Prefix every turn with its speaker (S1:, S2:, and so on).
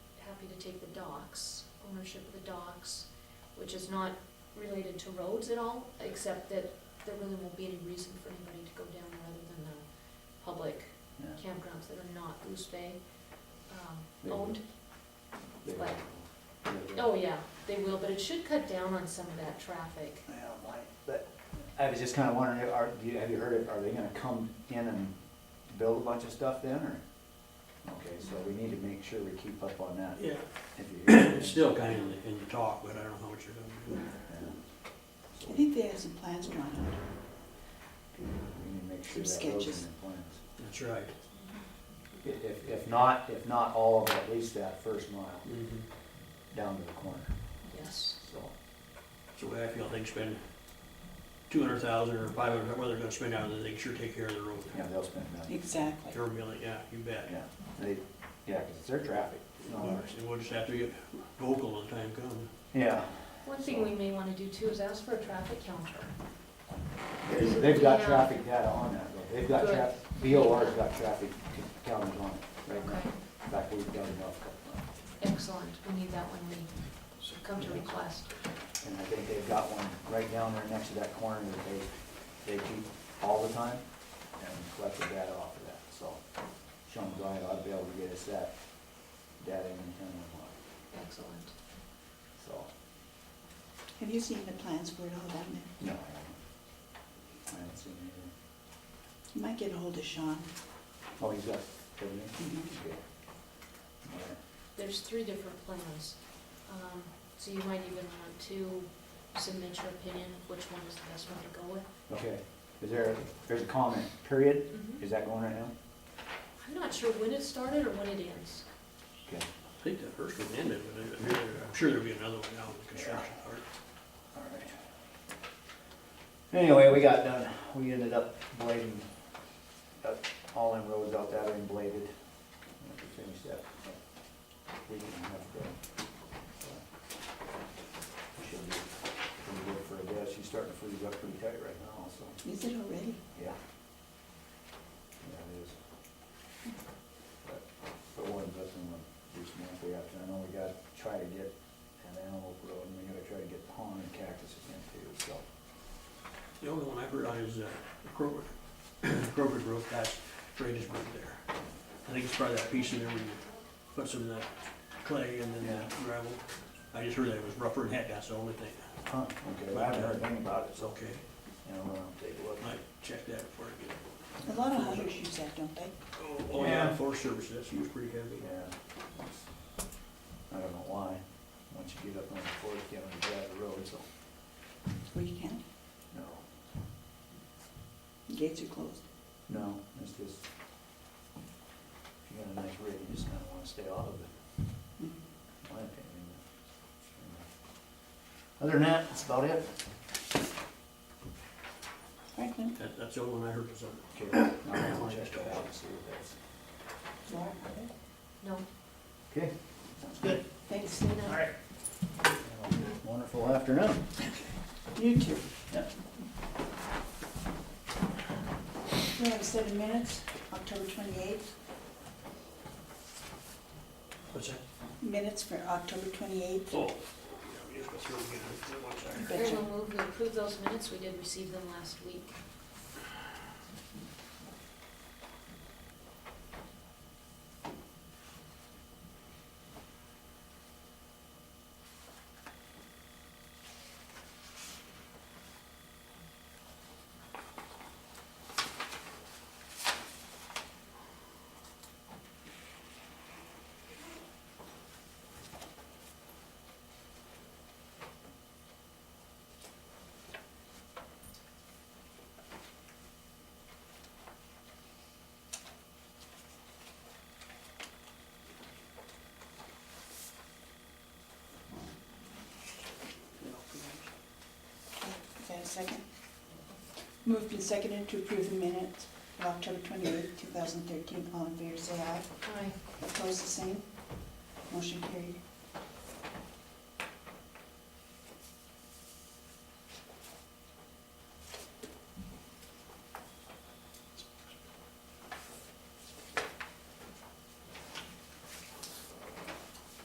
S1: docks, ownership of the docks, which is not related to roads at all, except that there really won't be any reason for anybody to go down there other than the public
S2: Yeah.
S1: campgrounds that are not Goose Bay um,
S2: They
S1: owned.
S2: They-
S1: Like-
S2: yeah, they-
S1: Oh, yeah, they will, but it should cut down on some of that traffic.
S2: Yeah, might, but I was just kinda wondering, are, do you, have you heard, of- are they gonna come in and build a bunch of stuff then, or? Okay, so we need to make sure we keep up on that,
S3: Yeah,
S2: if you hear.
S3: it's still kind of in the, in the talk, but I don't know what you're gonna do.
S4: I think they have some plans drawn out.
S2: We need to make sure
S4: Some
S2: that goes
S4: sketches.
S2: in the plans.
S3: That's right.
S2: I- If, if not, if not all of it, at least that first mile
S3: Mhm.
S2: down to the corner,
S1: Yes.
S2: so.
S3: That's the way I feel, they can spend two hundred thousand or five hundred, whether they're gonna spend out of it, they can sure take care of the road.
S2: Yeah, they'll spend that,
S4: Exactly.
S3: They're really, yeah, you bet.
S2: yeah, they, yeah, 'cause it's their traffic, it's not ours.
S3: And we'll just have to get vocal when the time comes.
S2: Yeah,
S1: One thing we may wanna do too is ask for a traffic counter.
S2: they- they've got
S1: Yeah.
S2: traffic data on that, though. they've got
S1: Good.
S2: traffic, BOR's got traffic counters on it right now.
S1: Okay,
S2: In fact, we've done enough, uh,
S1: excellent, we need that when we come to request.
S2: and I think they've got one right down there next to that corner that they, they keep all the time, and collect the data off of that, so. Sean Bryant ought to be able to get us that data anytime we want,
S1: Excellent.
S2: so.
S4: Have you seen the plans for it all down
S2: No,
S4: there?
S2: I haven't. I haven't seen anything.
S4: You might get a hold of Sean.
S2: Oh, he's got everything?
S4: Mhm.
S2: Okay. All right.
S1: There's three different plans, um, so you might even want to submit your opinion of which one is the best one to go with.
S2: Okay, is there, there's a comment, period,
S1: Mhm.
S2: is that going right now?
S1: I'm not sure when it started or when it ends.
S2: Okay,
S3: I think the first one ended, but I- I'm sure there- I'm sure there'll be another one now in the construction part.
S2: all right. Anyway, we got done, we ended up blading, got all them roads out that are bladed. We have to finish that. We can have to, uh, Should be, pretty good for a guess, she's starting to freeze up pretty tight right now, so.
S4: Is it already?
S2: Yeah. Yeah, it is. But, but one doesn't want to do some empty option, I know we gotta try to get an antelope road, and we gotta try to get pond and cactuses in too, so.
S3: The only one I've heard on is, uh, Kroger, Kroger Road, that's drainage road there. I think it's probably that piece in there where you put some of that clay and then that gravel. I just heard that it was rougher than heck, that's the only thing.
S2: Huh, okay, I haven't heard anything about it,
S3: It's
S2: so,
S3: okay,
S2: you know, I'll take a look.
S3: might check that before I get it.
S4: A lot of hunters use that, don't they?
S3: Oh, Oh, yeah,
S2: Yeah.
S3: Forest Service, that's, he was pretty heavy.
S2: Yeah. it's- I don't know why, once you get up on the fourth, you have to drive the road, so,
S4: Or you can't.
S2: no,
S4: Gates are closed.
S2: no, it's just, if you got a nice rig, you just kinda wanna stay off of it.
S4: Mhm.
S2: my opinion. Other than that, that's about it.
S4: Franklin,
S3: That, that's the only one I heard was on.
S2: Okay, now I'll check that out and see what that's.
S4: Laura,
S1: No,
S2: Okay, sounds good.
S4: thanks.
S1: Dana?
S2: Wonderful afternoon.
S4: You too.
S2: Yeah.
S4: We have seven minutes, October twenty-eighth.
S3: What's that?
S4: Minutes for October twenty-eighth.
S3: Oh, yeah, we just go through again, that one's there.
S1: Very well moved, we approve those minutes, we did receive them last week.
S4: Is that a second? Moved and seconded to approve the minutes of October twenty-eighth, two thousand thirteen. All in favor, say aye.
S1: Aye.
S4: Opposed, the same. Motion carried.